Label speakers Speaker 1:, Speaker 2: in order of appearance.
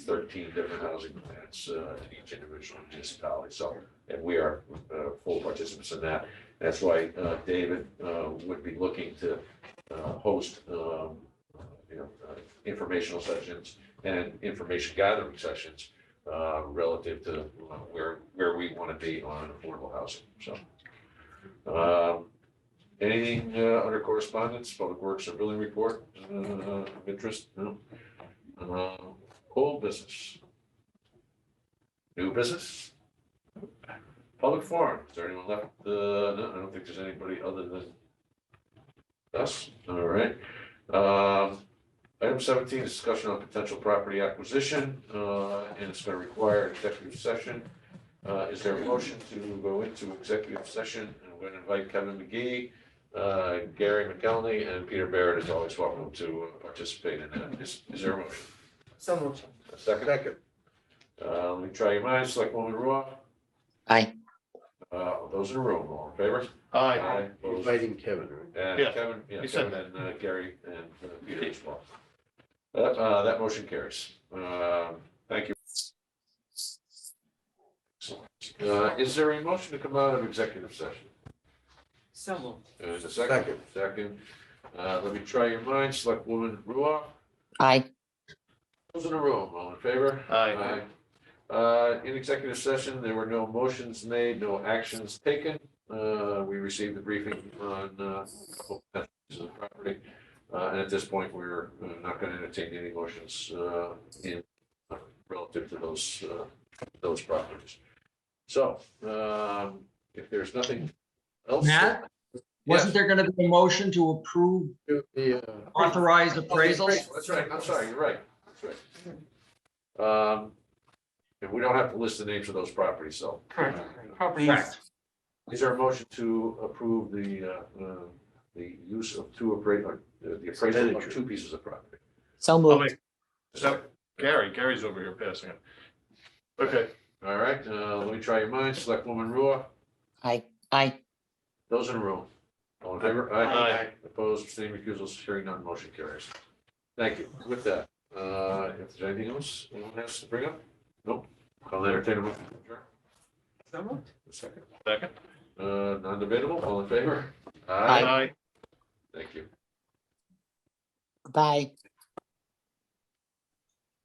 Speaker 1: thirteen different housing plans uh, to each individual municipality. So, and we are uh, full participants in that. That's why uh, David uh, would be looking to uh, host, um, you know, uh, informational sessions and information gathering sessions uh, relative to uh, where, where we want to be on affordable housing, so. Um, Anything uh, under correspondence, public works or building report, uh, of interest, no? Uh, Old business? New business? Public forum, is there anyone left? Uh, No, I don't think there's anybody other than us, all right. Um, Item seventeen, discussion on potential property acquisition, uh, and it's gonna require executive session. Uh, is there a motion to go into executive session? And we're gonna invite Kevin McGee, uh, Gary McElney, and Peter Barrett is always welcome to participate in that. Is, is there a motion?
Speaker 2: So moved.
Speaker 1: A second? Second. Uh, let me try your minds, Selectwoman Ruoff,
Speaker 3: Aye.
Speaker 1: uh, those in the room, all in favor?
Speaker 4: Aye.
Speaker 1: Opposed?
Speaker 4: Inviting Kevin, right?
Speaker 1: And
Speaker 4: Yeah,
Speaker 1: Kevin, yeah,
Speaker 4: you said
Speaker 1: Kevin and uh, Gary and uh, Peter as well. That, uh, that motion carries. Um thank you. Excellent. Uh, is there a motion to come out of executive session?
Speaker 2: So moved.
Speaker 1: There's a second, second. Uh, let me try your minds, select woman Ruoff,
Speaker 3: Aye.
Speaker 1: those in the room, all in favor?
Speaker 4: Aye.
Speaker 1: Aye. Uh, in executive session, there were no motions made, no actions taken. Uh, we received the briefing on, uh, a couple of pieces of property. Uh, and at this point, we're uh, not going to entertain any motions, uh, in, uh, relative to those, uh, those properties. So, um, if there's nothing else.
Speaker 5: Matt? Wasn't there gonna be a motion to approve
Speaker 4: Do The, uh,
Speaker 5: authorized appraisals?
Speaker 1: That's right, I'm sorry, you're right, that's right. Um, and we don't have to list the names of those properties, so. Uh,
Speaker 2: Correct.
Speaker 5: Correct.
Speaker 1: Is there a motion to approve the, uh, uh, the use of two appraisal, the appraisal of two pieces of property?
Speaker 3: So
Speaker 4: I'll
Speaker 3: moved.
Speaker 4: make- So, Oh, Gary, Gary's over here passing it. Okay,
Speaker 1: All right, uh, let me try your minds, select woman Ruoff,
Speaker 3: Aye. Aye.
Speaker 1: those in the room. All in favor?
Speaker 4: Aye.
Speaker 1: Opposed, abstaining, recusals, hearing none, motion carries. Thank you, with that, uh, if there's anything else anyone has to bring up? Nope, I'll entertain a motion.
Speaker 2: So moved.
Speaker 1: A Second.
Speaker 4: second.
Speaker 1: Uh, non-debatable, all in favor?
Speaker 3: Aye.
Speaker 4: Aye.
Speaker 1: Thank you.
Speaker 3: Goodbye.